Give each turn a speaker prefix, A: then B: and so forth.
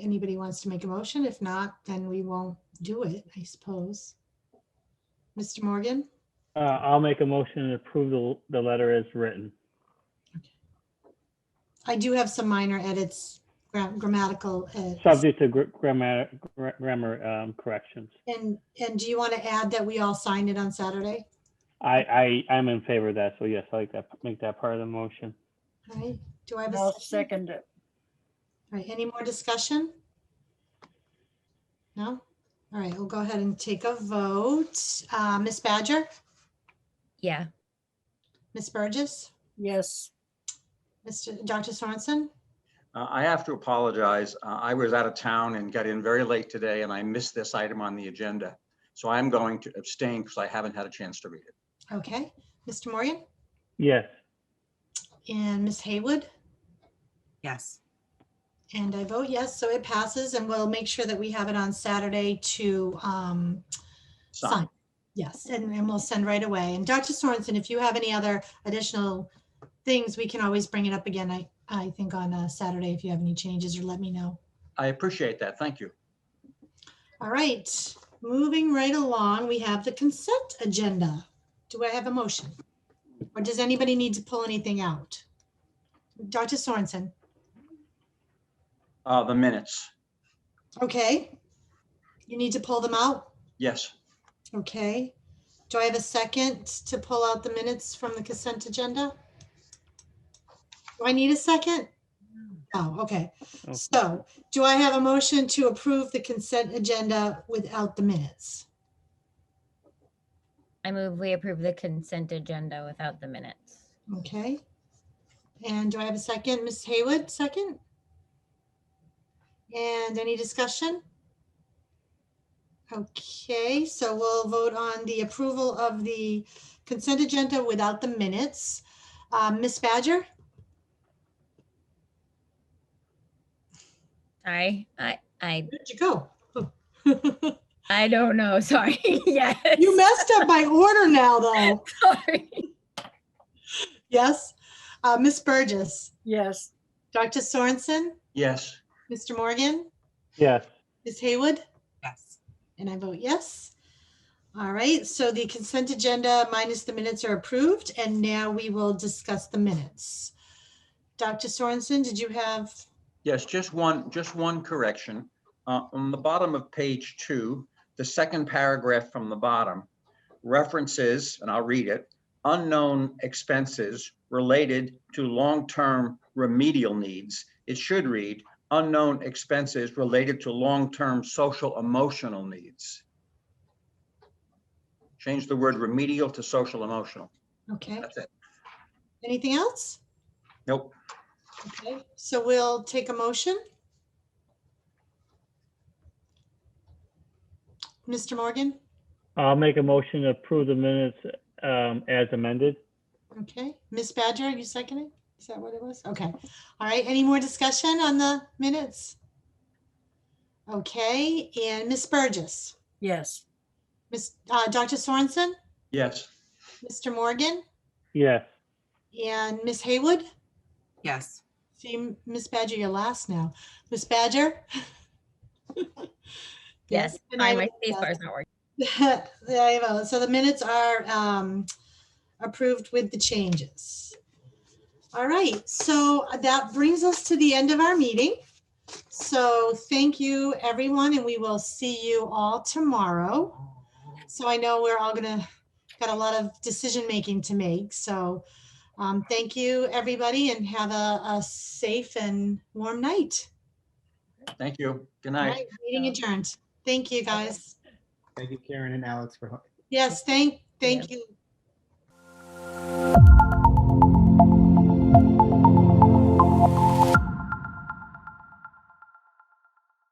A: anybody wants to make a motion. If not, then we won't do it, I suppose. Mr. Morgan,
B: Uh, I'll make a motion to approve the, the letter as written.
A: I do have some minor edits, gra- grammatical. edits.
B: Subject to gr- grammar, gra- grammar, um, corrections.
A: And, and do you want to add that we all signed it on Saturday?
B: I, I, I'm in favor of that, so yes, I like that, make that part of the motion.
A: All right, do I have a
C: I'll
A: second?
C: second it.
A: All right, any more discussion? No? All right, we'll go ahead and take a vote. Uh, Ms. Badger,
D: Yeah,
A: Ms. Burgess,
C: Yes,
A: Mr. Dr. Sorensen?
E: Uh, I have to apologize. Uh, I was out of town and got in very late today and I missed this item on the agenda. So I'm going to abstain because I haven't had a chance to read it.
A: Okay, Mr. Morgan
B: Yes,
A: and Ms. Haywood?
F: Yes.
A: And I vote yes, so it passes and we'll make sure that we have it on Saturday to um,
E: Sign.
A: sign. Yes, and and we'll send right away. And Dr. Sorensen, if you have any other additional things, we can always bring it up again, I, I think on uh, Saturday if you have any changes or let me know.
E: I appreciate that. Thank you.
A: All right, moving right along, we have the consent agenda. Do I have a motion? Or does anybody need to pull anything out? Dr. Sorensen,
E: Uh, The minutes.
A: okay? You need to pull them out?
E: Yes,
A: Okay. Do I have a second to pull out the minutes from the consent agenda? Do I need a second? Oh, okay.
B: Okay.
A: So do I have a motion to approve the consent agenda without the minutes?
D: I move we approve the consent agenda without the minutes.
A: Okay. And do I have a second? Ms. Haywood, second? And any discussion? Okay, so we'll vote on the approval of the consent agenda without the minutes. Um, Ms. Badger?
D: Sorry, I, I,
A: Where'd you go?
D: I don't know, sorry, yes.
A: You messed up my order now, though.
D: Sorry.
A: Yes. Uh, Ms. Burgess,
C: yes,
A: Dr. Sorensen,
E: yes.
A: Mr. Morgan,
B: yes,
A: Ms. Haywood?
F: Yes.
A: And I vote yes. All right, so the consent agenda minus the minutes are approved, and now we will discuss the minutes. Dr. Sorensen, did you have,
E: Yes, just one, just one correction. Uh, On the bottom of page two, the second paragraph from the bottom references, and I'll read it, unknown expenses related to long-term remedial needs. It should read unknown expenses related to long-term social emotional needs. Change the word remedial to social emotional.
A: okay,
E: That's it.
A: anything else?
E: Nope.
A: Okay, so we'll take a motion. Mr. Morgan,
B: I'll make a motion to approve the minutes, um, as amended.
A: okay, Ms. Badger, are you seconding? Is that what it was? Okay, all right, any more discussion on the minutes? Okay, and Ms. Burgess?
C: yes,
A: Ms., uh, Dr. Sorensen,
E: Yes.
A: Mr. Morgan,
B: Yes,
A: and Ms. Haywood.
F: Yes.
A: See, Ms. Badger, you're last now. Ms. Badger?
D: Yes,
A: and I
D: sorry, my
A: vote
D: space
A: yes.
D: bar is not working.
A: There you go. So the minutes are um, approved with the changes. All right, so that brings us to the end of our meeting. So thank you, everyone, and we will see you all tomorrow. So I know we're all gonna, got a lot of decision-making to make, so um, thank you, everybody, and have a, a safe and warm night.
E: Thank you. Good
A: All
E: night.
A: right, meeting adjourned. Thank you, guys.
G: Thank you, Karen and Alex, for
A: Yes, thank, thank you,